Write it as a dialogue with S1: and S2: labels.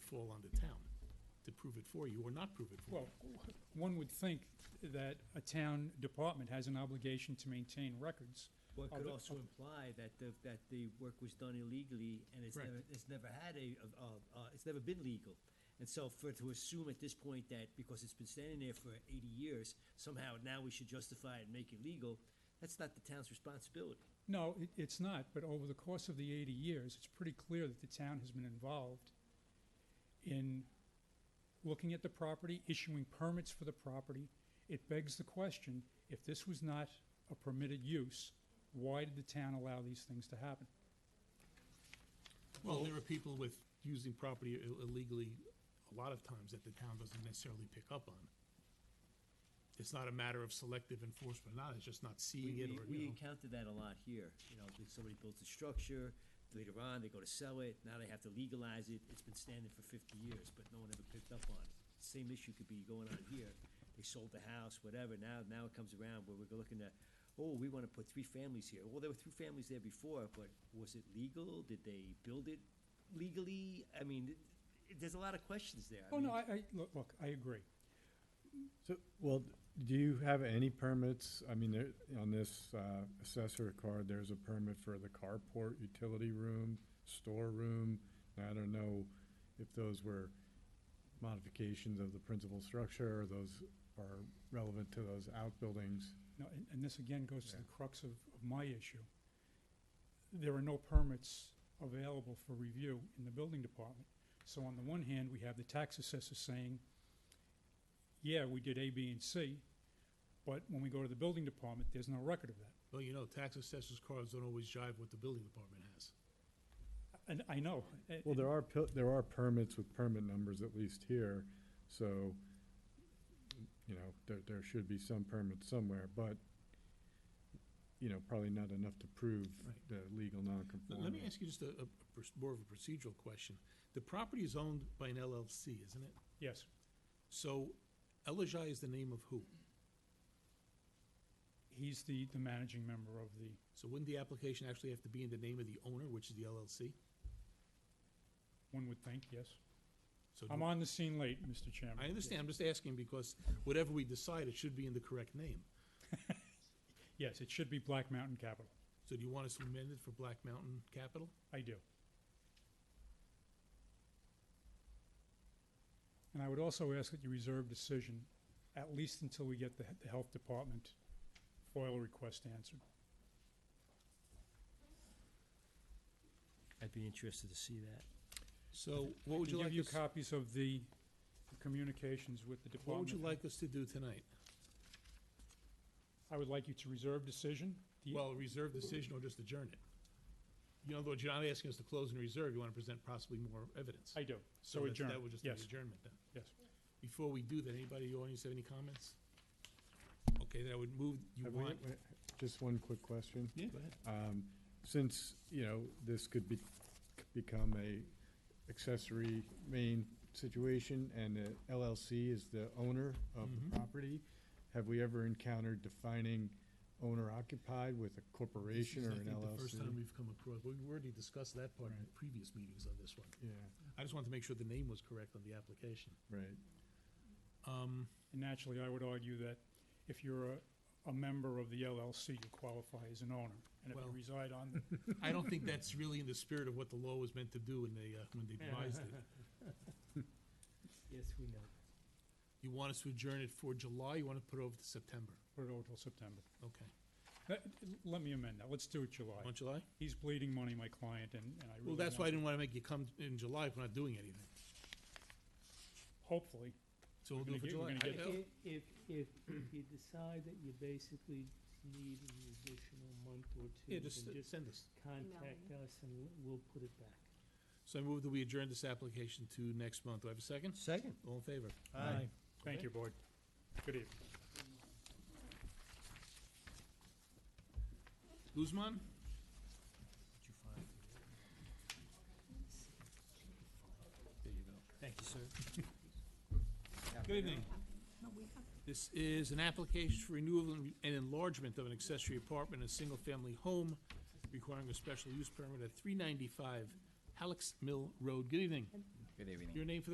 S1: fall on the town to prove it for you or not prove it for you.
S2: Well, one would think that a town department has an obligation to maintain records.
S3: Well, it
S2: Of
S3: could
S2: the-
S3: also imply that the, that the work was done illegally and it's
S1: Correct.
S3: never, it's never had a, uh, uh, it's never been legal. And so for, to assume at this point that because it's been standing there for eighty years, somehow now we should justify it and make it legal, that's not the town's responsibility.
S2: No, it, it's not, but over the course of the eighty years, it's pretty clear that the town has been involved in looking at the property, issuing permits for the property. It begs the question, if this was not a permitted use, why did the town allow these things to happen?
S1: Well, there are people with, using property ill- illegally a lot of times that the town doesn't necessarily pick up on. It's not a matter of selective enforcement, or not, it's just not seeing
S3: We,
S1: it
S3: we,
S1: or,
S3: we
S1: you know.
S3: encountered that a lot here, you know, that somebody builds a structure, later on, they go to sell it, now they have to legalize it, it's been standing for fifty years, but no one ever picked up on it. Same issue could be going on here, they sold the house, whatever, now, now it comes around where we're looking at, oh, we wanna put three families here, well, there were three families there before, but was it legal, did they build it legally? I mean, it- it- there's a lot of questions there. I
S2: Oh, no,
S3: mean,
S2: I, I, look, look, I agree.
S4: So, well, do you have any permits? I mean, there, on this, uh, assessor card, there's a permit for the carport, utility room, storeroom. Now, I don't know if those were modifications of the principal structure or those are relevant to those outbuildings.
S2: No, and, and this again goes to
S4: Yeah.
S2: the crux of, of my issue. There are no permits available for review in the building department. So on the one hand, we have the tax assessor saying, yeah, we did A, B, and C, but when we go to the building department, there's no record of that.
S1: Well, you know, tax assessors cards don't always jive with the building department has.
S2: And I know. a-
S4: Well, there are, pil- there are permits with permit numbers at least here, so, you know, there, there should be some permits somewhere, but, you know, probably not enough to prove
S1: Right.
S4: the legal
S1: Let-
S4: nonconformity.
S1: Let me ask you just a, a pers- more of a procedural question. The property is owned by an LLC, isn't it?
S2: Yes,
S1: So Elijah is the name of who?
S2: he's the, the managing member of the,
S1: So wouldn't the application actually have to be in the name of the owner, which is the LLC?
S2: one would think, yes.
S1: So do-
S2: I'm on the scene late, Mr. Chairman.
S1: I understand, I'm just asking because whatever we decide, it should be in the correct name.
S2: Yes, it should be Black Mountain Capital.
S1: So do you want us to amend it for Black Mountain Capital?
S2: I do. And I would also ask that you reserve decision, at least until we get the, the health department FOIL request answered.
S3: I'd be interested to see that.
S1: So what would
S2: Can
S1: you like,
S2: Give you
S1: us-
S2: copies of the communications with the
S1: what
S2: department.
S1: would you like us to do tonight?
S2: I would like you to reserve decision. The-
S1: Well, reserve decision or just adjourn it? In other words, you're not asking us to close and reserve, you want to present possibly more evidence.
S2: I do. So
S1: that-
S2: adjourn,
S1: That would just be
S2: yes,
S1: adjournment then.
S2: yes.
S1: Before we do that, anybody in the audience have any comments? Okay, then I would move, you
S4: Have we-
S1: want?
S4: wait, Just one quick question.
S1: Yeah, go ahead.
S4: Um, Since, you know, this could be, become a accessory main situation and the LLC is the owner of
S1: Mhm.
S4: the property, have we ever encountered defining owner occupied with a corporation
S1: This
S4: or
S1: is, I
S4: an
S1: think, The first time
S4: LLC?
S1: we've come across, we already discussed that part in previous meetings on this one.
S4: Yeah,
S1: I just wanted to make sure the name was correct on the application.
S4: right.
S1: Um,
S2: And naturally, I would argue that if you're a, a member of the LLC, you qualify as an owner. And if
S1: Well-
S2: you reside on the
S1: I don't think that's really in the spirit of what the law was meant to do when they, uh, when they devised it.
S3: Yes, we know.
S1: You want us to adjourn it for July, you want to put it over to September?
S2: put it over till September.
S1: Okay.
S2: Let, let me amend that. Let's do it July.
S1: On July?
S2: He's bleeding money, my client, and, and I really.
S1: Well, that's why I
S2: want-
S1: didn't want to make you come in July if we're not doing anything.
S2: Hopefully,
S1: So we'll do
S2: We're
S1: it for
S2: gonna get-
S1: July.
S2: we're gonna
S1: I-
S2: get-
S5: If, if, if if you decide that you basically need an additional month or two,
S1: Yeah,
S5: then
S1: just uh,
S5: just
S1: send us.
S5: contact us and we'll- we'll put it back.
S1: So I move that we adjourn this application to next month. Do I have a second?
S3: Second.
S1: All in favor?
S3: Aye.
S2: thank
S1: Okay.
S2: you, board. Good evening.
S1: Guzman?
S3: Did you find it?
S1: There you go.
S3: Thank you, sir.
S1: Good evening. This is an application for renewal and and enlargement of an accessory apartment in a single-family home requiring a special use permit at three ninety-five Halleck's Mill Road. Good evening.
S6: Good evening.
S1: Your name for the